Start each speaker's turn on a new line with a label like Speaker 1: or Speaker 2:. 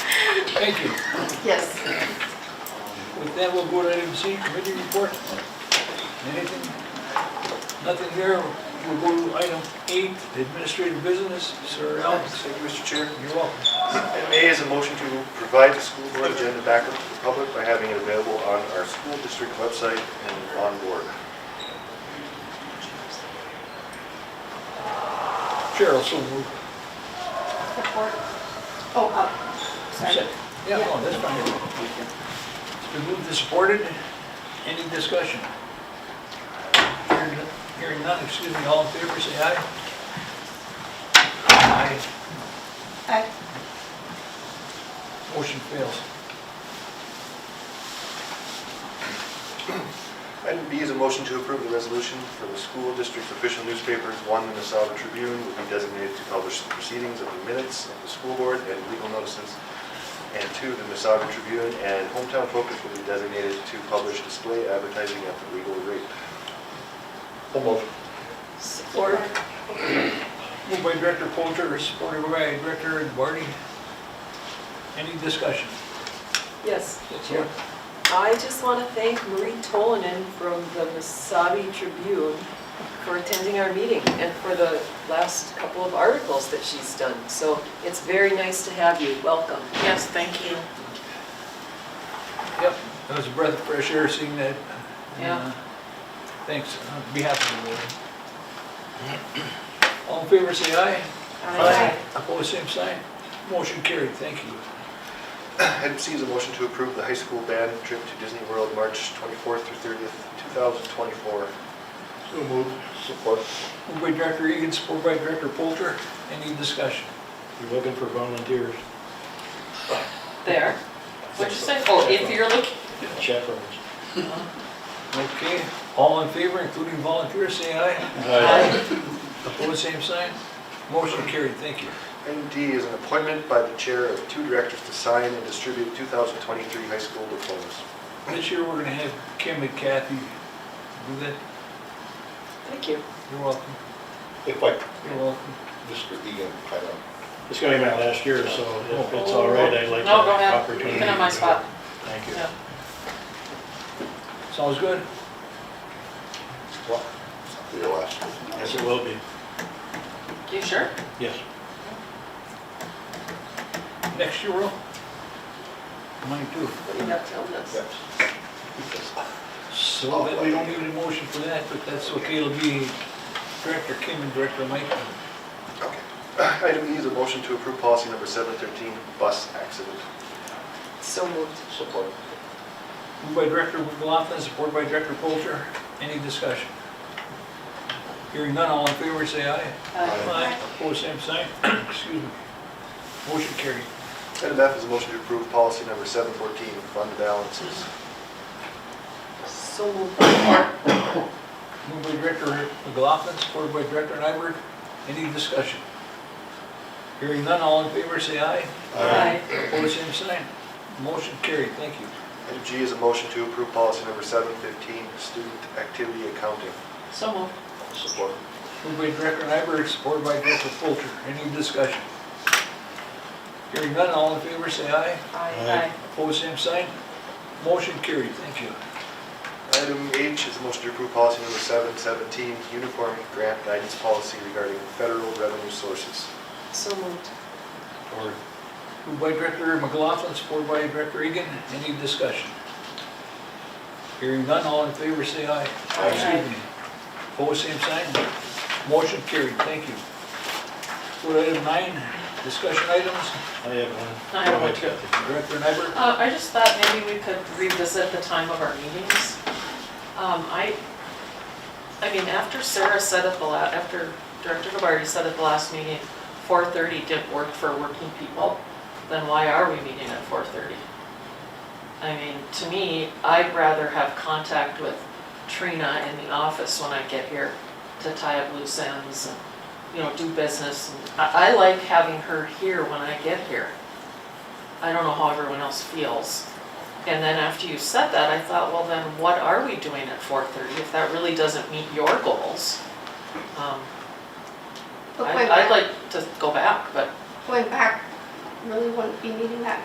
Speaker 1: Thank you.
Speaker 2: Yes.
Speaker 1: With that, we'll go to item C, committee report. Anything? Nothing here. We'll go to item eight, administrative business. Sir Alex,
Speaker 3: Thank you, Mr. Chair.
Speaker 1: you're welcome.
Speaker 3: Item A is a motion to provide the school board agenda back up to the public by having it available on our school district website and on board.
Speaker 1: Cheryl, so moved.
Speaker 2: Report. Oh, uh, sorry.
Speaker 1: Yeah, no, that's fine. It's been moved and supported. Any discussion? Hearing none- Hearing none, excuse me, all in favor, say aye. Aye.
Speaker 2: Aye.
Speaker 1: Motion fails.
Speaker 3: Item B is a motion to approve the resolution for the school district's official newspapers, one Minnesota Tribune, will be designated to publish the proceedings of the minutes of the school board and legal notices, and two, the Minnesota Tribune and Hometown Focus will be designated to publish display advertising at the legal rate.
Speaker 2: Support.
Speaker 1: Moved by Director Polter, supported by Director Barty. Any discussion?
Speaker 4: Yes.
Speaker 1: That's here.
Speaker 4: I just want to thank Marie Tolanen from the Masabi Tribune for attending our meeting and for the last couple of articles that she's done. So it's very nice to have you. Welcome.
Speaker 2: Yes, thank you.
Speaker 1: Yep, that was a breath of fresh air seeing that.
Speaker 4: Yeah.
Speaker 1: Uh, Thanks, on behalf of the board. All in favor, say aye.
Speaker 2: Aye.
Speaker 1: Opposed, same sign. Motion carried, thank you.
Speaker 3: Item C is a motion to approve the high school band trip to Disney World, March 24th through 30th, 2024.
Speaker 1: So moved.
Speaker 3: Support.
Speaker 1: Moved by Director Egan, supported by Director Polter. Any discussion?
Speaker 5: You're looking for volunteers,
Speaker 4: There. What'd you say? Oh, if you're looking.
Speaker 5: chaperones.
Speaker 1: Okay, all in favor, including volunteers, say aye. Opposed, same sign. Motion carried, thank you.
Speaker 3: Item D is an appointment by the chair of two directors to sign and distribute 2023 high school diplomas.
Speaker 1: This year, we're gonna have Kim and Kathy do that.
Speaker 4: Thank you.
Speaker 1: You're welcome.
Speaker 6: If I,
Speaker 1: You're welcome.
Speaker 6: just for the, uh, kind of,
Speaker 5: It's gonna be my last year, so if it's all right, I'd like to
Speaker 7: No, go
Speaker 5: have
Speaker 7: ahead.
Speaker 5: opportunity.
Speaker 7: You can have my spot.
Speaker 5: Thank you.
Speaker 7: Yeah.
Speaker 1: Sounds good?
Speaker 6: well, for your last.
Speaker 5: Yes, it will be,
Speaker 7: You sure?
Speaker 5: yes.
Speaker 1: Next year, Will? Mine too.
Speaker 4: What are you not telling us?
Speaker 1: So that we Oh, don't need a motion for that, but that's okay, it'll be Director Kim and Director Mike.
Speaker 3: Okay. Item E is a motion to approve policy number 713, bus accident.
Speaker 4: So moved.
Speaker 6: Support.
Speaker 1: Moved by Director McLaughlin, supported by Director Polter. Any discussion? Hearing none, all in favor, say aye. Aye. Opposed, same sign. Excuse me. Motion carried.
Speaker 3: Item F is a motion to approve policy number 714, fund balances.
Speaker 4: So moved.
Speaker 1: Moved by Director McLaughlin, supported by Director Nyberg. Any discussion? Hearing none, all in favor, say aye.
Speaker 4: Aye.
Speaker 1: Opposed, same sign. Motion carried, thank you.
Speaker 3: Item G is a motion to approve policy number 715, student activity accounting.
Speaker 7: So moved.
Speaker 6: Support.
Speaker 1: Moved by Director Nyberg, supported by Director Polter. Any discussion? Hearing none, all in favor, say aye.
Speaker 5: Aye.
Speaker 1: Opposed, same sign. Motion carried, thank you.
Speaker 3: Item H is a motion to approve policy number 717, uniform grant guidance policy regarding federal revenue sources.
Speaker 4: So moved.
Speaker 5: Or
Speaker 1: Moved by Director McLaughlin, supported by Director Egan. Any discussion? Hearing none, all in favor, say aye.
Speaker 4: Aye.
Speaker 1: Excuse me. Opposed, same sign. Motion carried, thank you. Go to item nine, discussion items.
Speaker 5: I have one.
Speaker 7: I have one,
Speaker 5: too.
Speaker 1: Director Nyberg.
Speaker 7: Uh, I just thought maybe we could revisit the time of our meetings. Um, I, I mean, after Sarah said at the la, after Director Gabarty said at the last meeting, four thirty didn't work for working people, then why are we meeting at four thirty? I mean, to me, I'd rather have contact with Trina in the office when I get here to tie up loose ends and, you know, do business. I, I like having her here when I get here. I don't know how everyone else feels. And then after you said that, I thought, well, then what are we doing at four thirty if that really doesn't meet your goals? Um,
Speaker 2: But
Speaker 7: I-
Speaker 2: going back,
Speaker 7: I'd like to go back, but
Speaker 2: going back, really wouldn't be meeting that